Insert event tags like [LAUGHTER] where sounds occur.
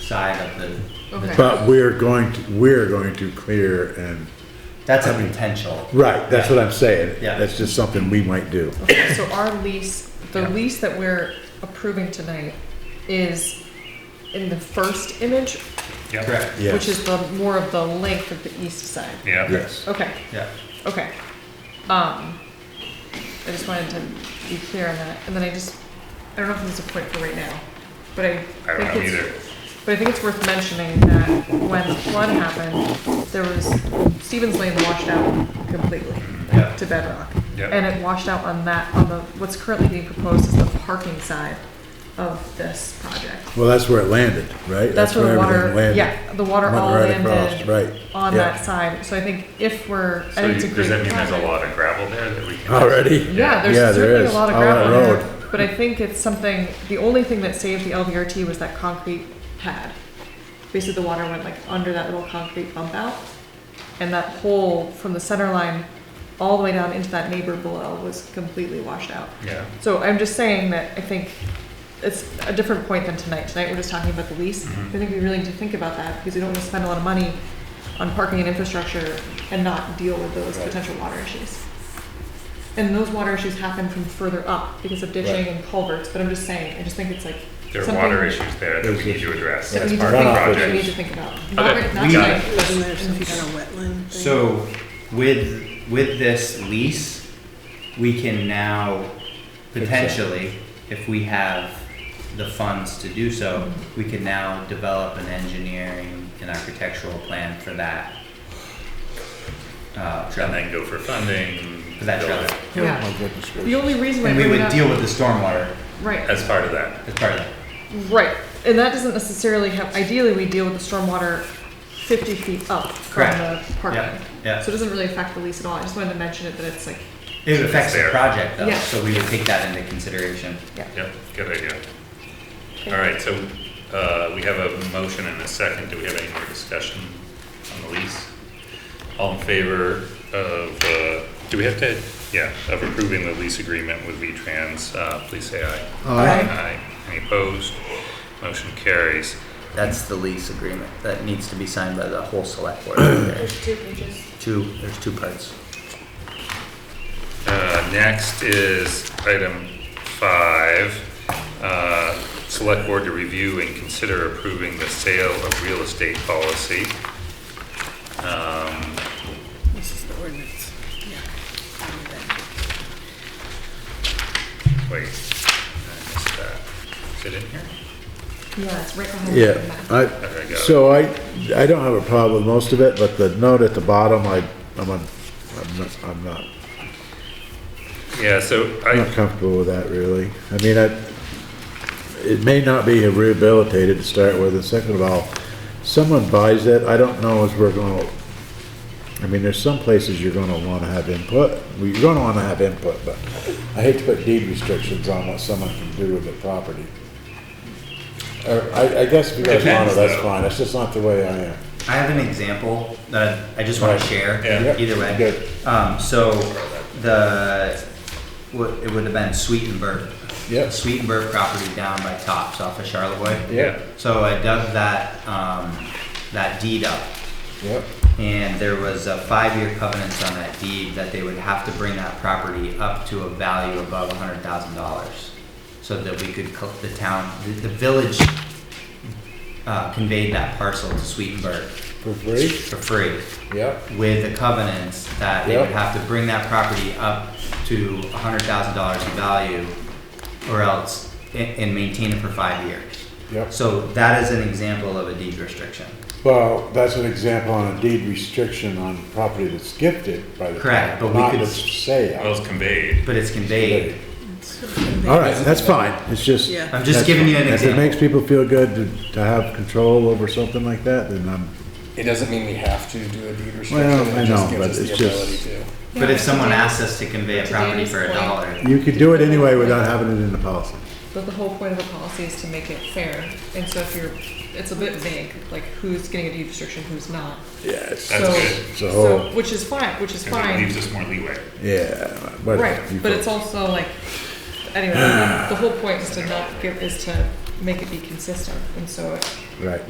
side of the. the- Okay. But we're going to, we're going to clear and, That's a I mean- potential. right, that's what I'm saying. Yeah. That's just something we might do. Okay, so our lease, the Yeah. lease that we're approving tonight is in the first image, Yep. Correct. which Yes, is the, more of the length of the east side. Yeah. yes. Okay, Yeah. okay. Um, I just wanted to be clear on that, and then I just, I don't know if this is a point for right now, but I I don't know think it's. either. But I think it's worth mentioning that when the flood happened, there was, Stevens Lane washed out completely Yeah. to bedrock. Yeah. And it washed out on that, on the, what's currently being proposed is the parking side of this project. Well, that's where it landed, right? That's where the everything water, landed. yeah, the water Went all right across, landed Right. on yeah. that side. So I think if we're, I So think it's a you- great. does that mean there's a project. lot of gravel there that [LAUGHS] we can? Already? Yeah, Yeah, there's there certainly a is, lot of on that gravel there, road. but I think it's something, the only thing that saved the LVRT was that concrete pad. Basically, the water went like under that little concrete bump out, and that hole from the center line all the way down into that neighbor below was completely washed out. Yeah. So I'm just saying that I think it's a different point than tonight. Tonight, we're just talking about the lease. I Mm-hmm. think we really need to think about that, because we don't want to spend a lot of money on parking and infrastructure and not deal with those potential water issues. And those water issues happen from further up because of ditching Right. and culverts, but I'm just saying, I just think it's like There are something water issues there that we There's need to address that we as need to part think of the runoff about, that we need project. to think about. Okay, Not, not we got tonight, it. but in Isn't the there some kind future. of wetland thing? So with, with this lease, we can now potentially, if we have the funds to do so, we can now develop an engineering and architectural plan for that. Uh, And trail, then go for funding. for that build trail. it Yeah, My goodness the gracious. only reason why And we bring it would up- deal with the stormwater Right, As part of that. as part of that. right, and that doesn't necessarily have, ideally, we deal with the stormwater fifty feet up from Correct. the Yeah, parking. yeah. So it doesn't really affect the lease at all, I just wanted to mention it, that it's like, It affects the there. project though, Yeah. so we would take that into consideration. yeah. Yep, good idea. All right, so, uh, we have a motion and a second. Do we have any more discussion on the lease? All in favor of, uh, do we have to, yeah, of approving the lease agreement with V-Trans, uh, please say aye. Aye. Aye. Any opposed? Motion carries. That's the lease agreement that needs to be signed by the whole select [CLEARS THROAT] board. There's There's two pages. two, there's two parts. Uh, next is item five, uh, select board to review and consider approving the sale of real estate policy. Um, This is the ordinance. Yeah. Wait, I missed that. Is it in here? Yeah, it's right behind. Yeah, the Okay, got I, it. so I, I don't have a problem with most of it, but the note at the bottom, I, I'm, un- I'm not, I'm not, Yeah, so I'm not I, comfortable with that really. I mean, I, it may not be rehabilitated to start with, and second of all, someone buys it, I don't know if we're gonna, I mean, there's some places you're gonna wanna have input, we are gonna wanna have input, but I hate to put deed restrictions on what someone can do with their property. Or, I, I guess if you guys want Depends, it, that's though. fine, that's just not the way I am. I have an example that I just want to share. Yeah. Yep, Either way. good. Um, so the, what, it would have been Sweetenburg. Yep. Sweetenburg property down by Tops off of Charlevoix. yeah, So I dug that, um, that deed up. Yep, And there was a five-year covenant on that deed that they would have to bring that property up to a value above hundred thousand dollars. So that we could, co- the town, the, the village, uh, conveyed that parcel to Sweetenburg for free, for free yep. with the covenants that they would Yep. have to bring that property up to hundred thousand dollars in value or else, and, and maintain it for five years. Yep. So that is an example of a deed restriction. Well, that's an example on a deed restriction on property that's gifted by the. Correct, town, but we not could- that's well, sale. it's conveyed. But it's conveyed All right, that's fine, it's just. Yeah. I'm just that's giving you an fine. If it example. makes people feel good to, to have control over something like that, then I'm, It doesn't mean we have to do a deed restriction. Well, I It know, just gives but us it's the just- ability to. But if Yeah, someone to Dan- asks us to convey a to property Danny's for a point. dollar, you could do it anyway without having it in the policy. But the whole point of a policy is to make it fair, and so if you're, it's a bit vague, like who's getting a deed restriction, who's not. Yes. That's So- good. So- So, which is fine, which is 'cause it leaves fine, us more leeway. Yeah. what- right, you but it's folks. also like, anyway, the whole point is to not give, is to make it be consistent, and so it Right,